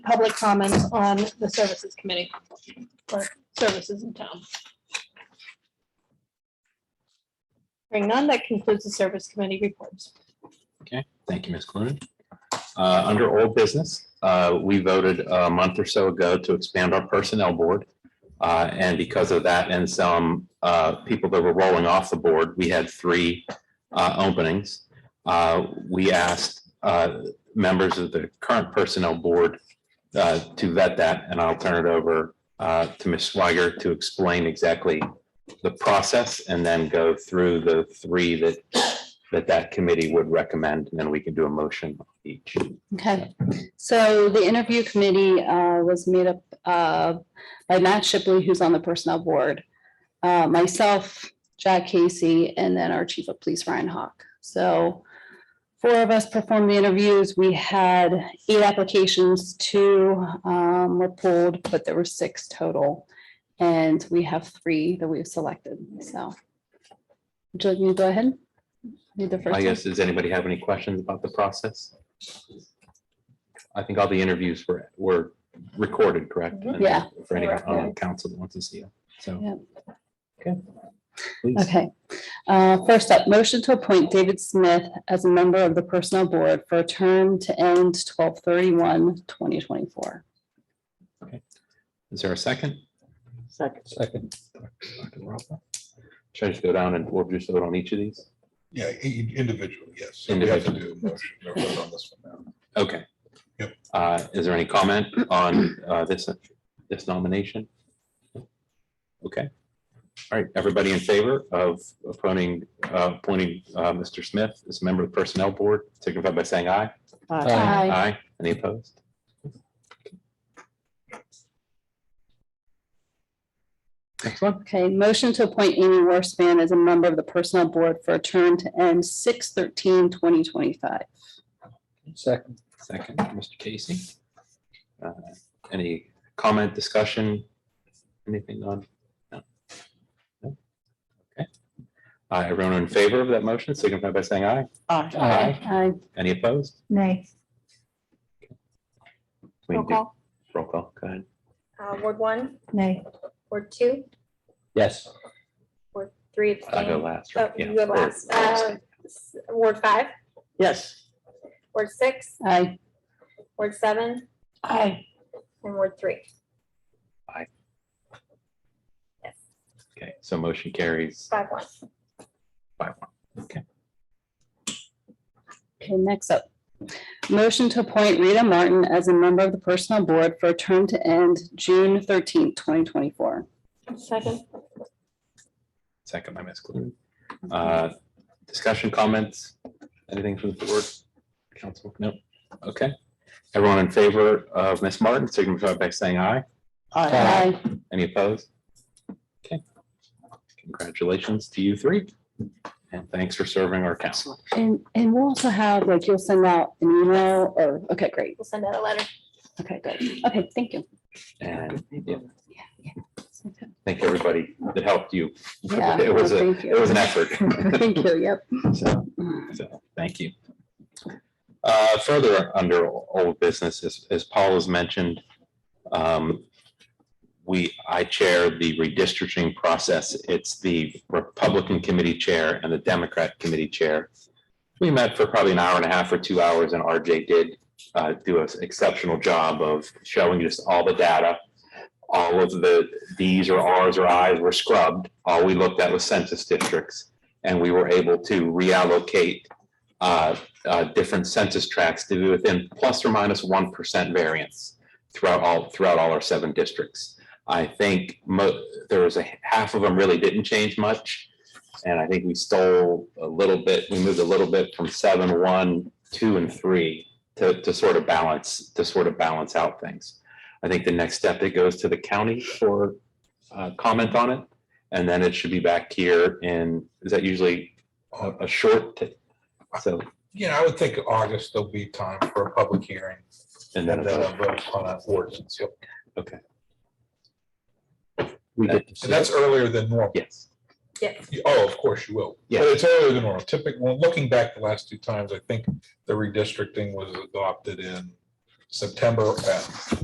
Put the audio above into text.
public comments on the services committee or services in town. Hearing none, that concludes the service committee reports. Thank you, Ms. Cloon. Uh, Under old business, uh, we voted a month or so ago to expand our personnel board. Uh, And because of that and some uh, people that were rolling off the board, we had three uh, openings. Uh, We asked uh, members of the current personnel board uh, to vet that, and I'll turn it over uh, to Ms. Swiger to explain exactly the process and then go through the three that that that committee would recommend, and then we can do a motion on each. Okay, so the interview committee uh, was made up uh, by Matt Shipley, who's on the personnel board, uh, myself, Jack Casey, and then our chief of police, Ryan Hawk. So four of us performed the interviews. We had eight applications, two um, were pulled, but there were six total. And we have three that we've selected, so. Would you like me to go ahead? Do the first I one? guess, does anybody have any questions about the process? I think all the interviews were, were recorded, correct? And Mm-hmm. Yeah. For any um, council that wants to see it, so. Okay. Please. Okay, Uh, first up, motion to appoint David Smith as a member of the Personnel Board for a term to end 2024. Is there a second? Second. Second. Should I just go down and we'll just vote on each of these? Yeah, i- i- individual, yes. So we have to do a motion or vote on this one now. Okay. Yep. Uh, is there any comment on, uh, this, this nomination? Okay. All right, everybody in favor of appointing, uh, appointing, uh, Mr. Smith as a member of the Personnel Board, signify by saying aye. Aye. Aye. Any opposed? Next one. Okay, motion to appoint Amy Worspan as a member of the Personnel Board for a term to end 2025. Second. Second, Mr. Casey. Uh, Any comment, discussion, anything on? no? No? Okay. Uh, Everyone in favor of that motion, signify by saying aye. Aye. Aye. Any opposed? Nay. We Roll can do- call. Roll call, go ahead. Uh, Ward one, Nay. Ward two, Yes. Ward three I go abstain. last. Oh, right? Yeah. you go or- last. Uh, s- Ward five, Yes. Ward six, Aye. Ward seven, Aye. and Ward three. Aye. Yes, Okay, so motion carries five one. five one. Okay, Okay, next up, motion to appoint Rita Martin as a member of the Personnel Board for a term to end June 13, twenty twenty-four. Second. second by Ms. Cloon. Uh, Discussion, comments, anything from the board? Council, no? Okay. Everyone in favor of Ms. Martin, signify by saying aye. Aye. Any opposed? Okay. Congratulations to you three, and thanks for serving our council. And, and we'll also have, like, you'll send out an email or, okay, great. We'll send out a letter. Okay, good. Okay, thank you. And yeah, thank everybody that helped you. Yeah, It was a, thank it was an you. effort. Thank you, yep. So, so, thank you. Uh, Further under old business, as- as Paul has mentioned, um, we, I chair the redistricting process. It's the Republican Committee Chair and the Democrat Committee Chair. We met for probably an hour and a half or two hours, and RJ did uh, do an exceptional job of showing just all the data. All of the Ds or Rs or Is were scrubbed. All we looked at was census districts and we were able to reallocate uh, uh, different census tracts to be within plus or minus one percent variance throughout all, throughout all our seven districts. I think mo, there was a half of them really didn't change much. And I think we stole a little bit, we moved a little bit from seven, one, two, and three to, to sort of balance, to sort of balance out things. I think the next step, it goes to the county for uh, comment on it. And then it should be back here in, is that usually a, a short? t- So, Yeah, I would think August, there'll be time for a public hearing and and then, uh, then a vote on that ordinance. Yep. okay, We get to see. And that's earlier than normal. yes, Yes, You- Oh, of course you will. Yeah. But it's earlier than normal. Typical, looking back the last two times, I think the redistricting was adopted in September F.